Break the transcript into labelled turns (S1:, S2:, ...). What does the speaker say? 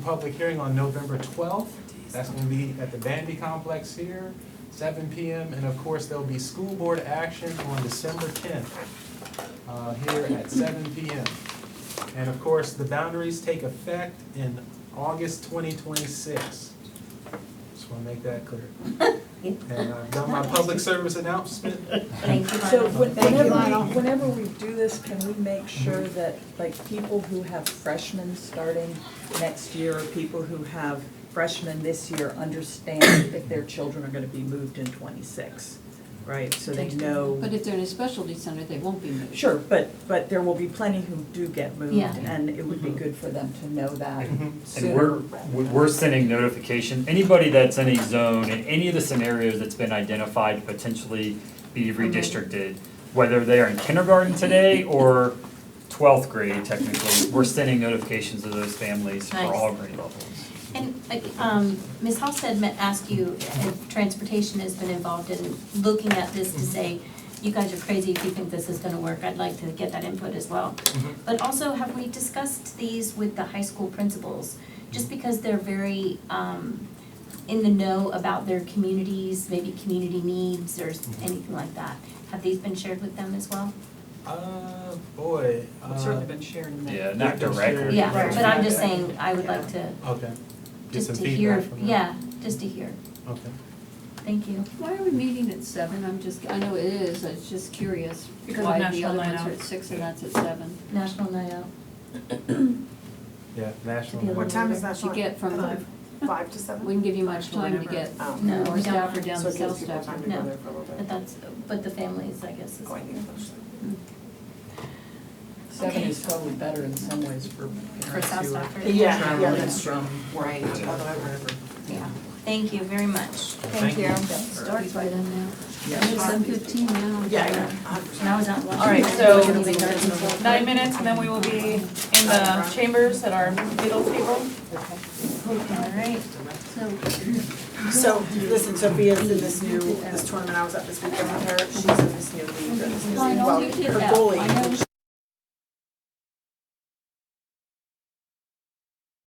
S1: public hearing on November 12th. That's going to be at the Bandy Complex here, 7 PM. And of course, there'll be school board action on December 10th uh, here at 7 PM. And of course, the boundaries take effect in August 2026. Just want to make that clear. And I've done my public service announcement.
S2: Thank you,
S3: So
S2: Lionel.
S3: when-
S2: Thank you,
S3: whenever,
S2: Lionel.
S3: we- whenever we do this, can we make sure that, like, people who have freshmen starting next year, or people who have freshmen this year, understand if their children are gonna be moved in twenty-six, right? So they know,
S4: But if they're in a specialty center, they won't be moved.
S3: sure, but, but there will be plenty who do get moved,
S4: Yeah.
S3: and it would be good for them to know that
S5: Mm-hmm. And
S3: sooner.
S5: we're, we- we're sending notification, anybody that's in a zone, in any of the scenarios that's been identified to potentially be redistricted, whether they are in kindergarten today or twelfth grade technically, we're sending notifications to those families for
S2: Nice.
S5: all grade levels.
S2: And, like, um, Ms. Halsted meant asked you, if transportation has been involved in looking at this to say, you guys are crazy if you think this is gonna work, I'd like to get that input as well.
S1: Mhm.
S2: But also, have we discussed these with the high school principals? Just because they're very, um, in the know about their communities, maybe community needs or s-
S1: Mm-hmm.
S2: anything like that. Have these been shared with them as well?
S1: Uh, boy. uh,
S3: I've certainly been sharing that.
S5: Yeah, not
S1: Sure.
S5: directly.
S2: Yeah,
S3: Right.
S2: but I'm just saying, I would like to,
S1: Okay. Get
S2: just
S1: some
S2: to hear,
S1: feedback from them.
S2: yeah, just to hear.
S1: Okay.
S2: Thank you.
S4: Why are we meeting at seven? I'm just, I know it is, I was just curious
S6: Because of
S4: why the
S6: National
S4: other
S6: Night
S4: ones
S6: Out.
S4: are at six and that's at seven.
S2: National Night Out.
S1: Yeah, national.
S2: To be a
S7: What time is that?
S4: To get from, the-
S7: Five to seven?
S4: wouldn't give you much time to get
S7: Oh.
S2: No,
S4: North
S2: we don't.
S4: Stafford down
S7: So
S4: to
S7: it gives
S4: South
S7: people time
S4: Stafford.
S7: to go
S2: No.
S7: there for a little
S2: But
S7: bit.
S2: that's, but the families, I guess, is.
S7: Oh, I think that's-
S3: Seven
S2: Okay.
S3: is probably better in some ways for
S2: For
S3: parents
S2: South
S3: who are
S2: Stafford.
S7: Yeah, yeah,
S3: traveling
S7: that's
S3: from
S7: Right.
S2: Yeah. Thank you very much.
S1: Thank you.
S4: Starts by then now.
S3: Yeah.
S4: It's seven fifteen now.
S2: And I was out lunch.
S6: All right, so- Nine minutes and then we will be in the chambers at our middle table.
S2: All right.
S4: So,
S7: So, listen, Sophia's in this new, this tournament I was at this weekend with her, she's in this new league, or this new
S4: Lionel, you
S7: well,
S4: did
S7: her
S4: that.
S7: goalie
S4: I